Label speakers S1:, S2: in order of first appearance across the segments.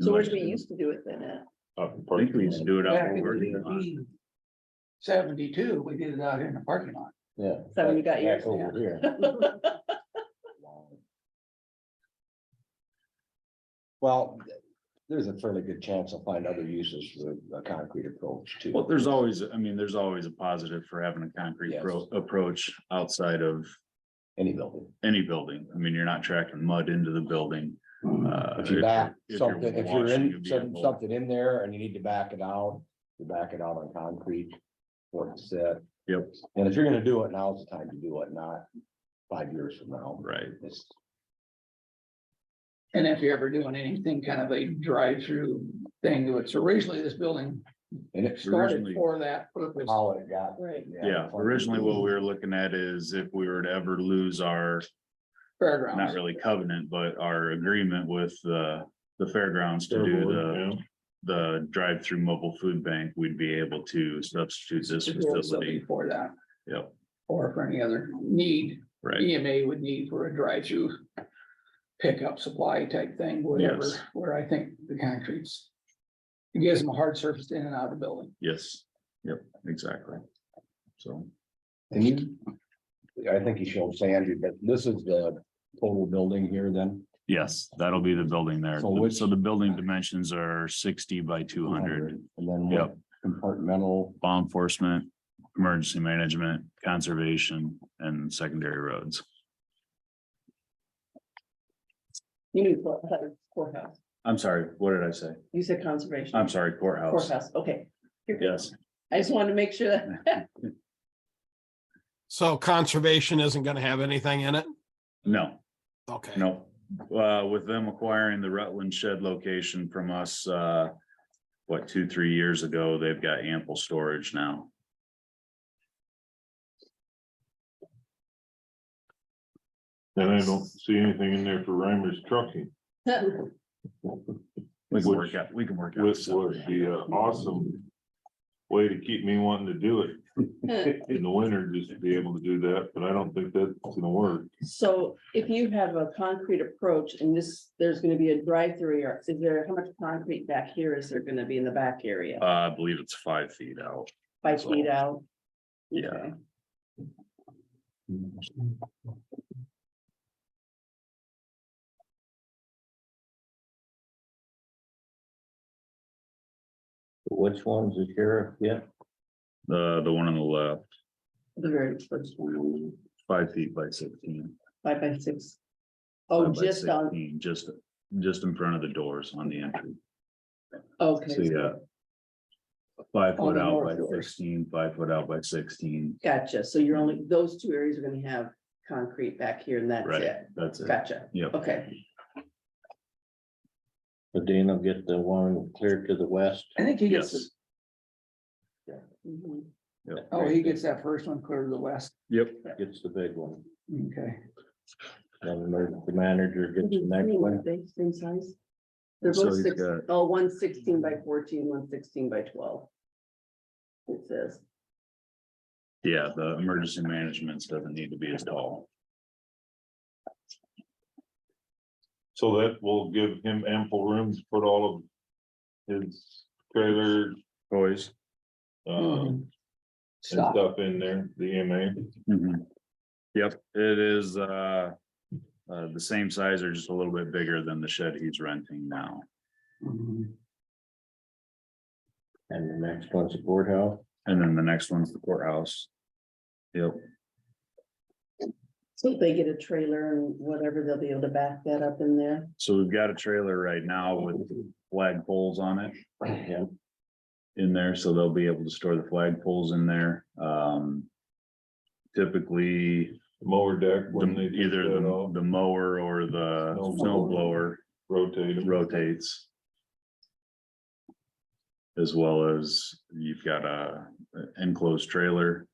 S1: So where do we used to do it then at?
S2: I
S3: I think we used to do uh, it
S4: Back
S3: out
S4: in
S3: over.
S4: nineteen Seventy-two, we did it out here in the parking lot.
S2: Yeah.
S1: So you got
S2: back
S1: yours
S2: over here. Well, there's a fairly good chance I'll find other uses for the concrete approach
S3: Well,
S2: too.
S3: there's always, I mean, there's always a positive for having a concrete
S2: Yes.
S3: pro- approach outside of
S2: any building.
S3: any building. I mean, you're not tracking mud into the building. uh,
S2: If you
S3: you're-
S2: back
S3: if you're
S2: something, if you're
S3: washing,
S2: in
S3: you'll be
S2: some-
S3: able-
S2: something in there and you need to back it out, you back it out on concrete. What it said.
S3: Yep.
S2: And if you're gonna do it, now's the time to do it, not five years from now.
S3: Right,
S2: It's-
S4: And if you're ever doing anything kind of a drive-through thing, which originally this building
S2: And it's
S4: started
S3: Originally-
S4: for that purpose.
S2: how it got.
S1: Right.
S3: yeah. Originally, what we were looking at is if we were to ever lose our, not
S4: Fairgrounds.
S3: really covenant, but our agreement with the, the fairgrounds to do the, the drive-through mobile food bank, we'd be able to substitute this facility.
S4: For that,
S3: Yep,
S4: or for any other need,
S3: right.
S4: EMA would need for E a drive-through pickup supply type thing, whatever,
S3: Yes.
S4: where I think the concrete's. It gives them a hard surface in and out of the building.
S3: Yes, yep, exactly. So,
S2: And you, I think you showed Sandy, but this is the total building here then.
S3: yes, that'll be the building there.
S2: So which-
S3: So the building dimensions are sixty by two hundred,
S2: And then what
S3: Yep.
S2: compartmental,
S3: law enforcement, emergency management, conservation, and secondary roads.
S1: You knew court- I thought it was courthouse.
S3: I'm sorry, what did I say?
S1: You said conservation.
S3: I'm sorry, courthouse.
S1: Courthouse, okay. You're good.
S3: Yes,
S1: I just wanted to make sure that.
S5: So conservation isn't gonna have anything in it?
S3: no.
S5: Okay.
S3: No, uh, with them acquiring the Rutland shed location from us, uh, what, two, three years ago, they've got ample storage now.
S6: And I don't see anything in there for Reimer's trucking,
S3: We can
S6: Which-
S3: work out, we can work out.
S6: which was
S3: something.
S6: the uh, awesome way to keep me wanting to do it in the winter, just to be able to do that, but I don't think that's gonna work.
S1: So if you have a concrete approach and this, there's gonna be a drive-through, or is there, how much concrete back here is there gonna be in the back area?
S3: Uh, I believe it's five feet out.
S1: Five feet out?
S3: Yeah.
S1: Okay.
S7: Which one's the sheriff? Yeah,
S3: The, the one on the left,
S1: The very first one,
S3: five feet by sixteen.
S1: five by six. Oh,
S3: five by
S1: just on,
S3: 16, Just, just in front of the doors on the entry. So
S1: okay,
S3: yeah. Five
S1: On
S3: foot
S1: the
S3: out by
S1: north doors.
S3: sixteen, five foot out by sixteen,
S1: gotcha. So you're only, those two areas are gonna have concrete back here and that's
S3: Right.
S1: it.
S3: that's it.
S1: Gotcha.
S3: Yep.
S1: Okay,
S7: but then I'll get the one clear to the west.
S4: I think he gets,
S3: Yes,
S4: the-
S1: Mhm.
S3: yep.
S4: oh, he gets that first one clear to the west,
S3: Yep,
S7: Gets the big one.
S4: okay.
S7: Then the emergency manager gets the next one.
S1: They Same size? They're
S3: So
S1: both
S3: he's
S1: six,
S3: got-
S1: oh, one sixteen by fourteen, one sixteen by twelve. It says,
S3: yeah, the emergency management's doesn't need to be as tall.
S6: So that will give him ample room to put all of his trailer,
S3: Toys.
S4: Hmm.
S6: um, and
S4: Stop.
S6: stuff in there, the E EMA.
S7: Mm-hmm.
S3: Yep, it is, uh, uh, the same size or just a little bit bigger than the shed he's renting now.
S4: Mhm.
S7: Mm-hmm. And the next one's the courthouse.
S3: And then the next one's the courthouse. Yep,
S1: so if they get a trailer and whatever, they'll be able to back that up in there.
S3: so we've got a trailer right now with flag poles on it.
S7: Yeah.
S3: in there, so they'll be able to store the flag poles in there. Um. Typically,
S6: Mower deck when they
S3: the-
S6: do
S3: either
S6: that
S3: the,
S6: all,
S3: the mower or the
S6: Snow
S3: snow blower
S6: rotate them.
S3: rotates. As well as you've got a enclosed trailer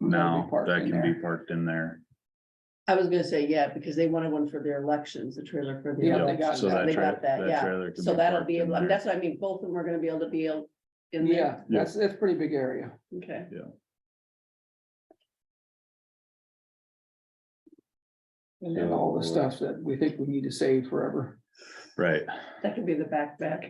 S4: That'll
S3: now
S4: be parked
S3: that
S4: in
S3: can be
S4: there.
S3: parked in there.
S1: I was gonna say, yeah, because they wanted one for their elections, a trailer for the.
S4: Yeah, they
S1: elections.
S4: got
S3: So that
S1: They
S3: tra-
S1: got that, yeah.
S3: trailer can
S1: So that'll
S3: parked
S1: be,
S3: in
S1: able. I mean,
S3: there.
S1: that's what I mean, both of them are gonna be able to be able in there.
S4: Yeah, that's, that's pretty big area.
S1: Okay.
S4: And then all the stuff that we think we need to save forever.
S3: Right.
S1: That could be the backpack.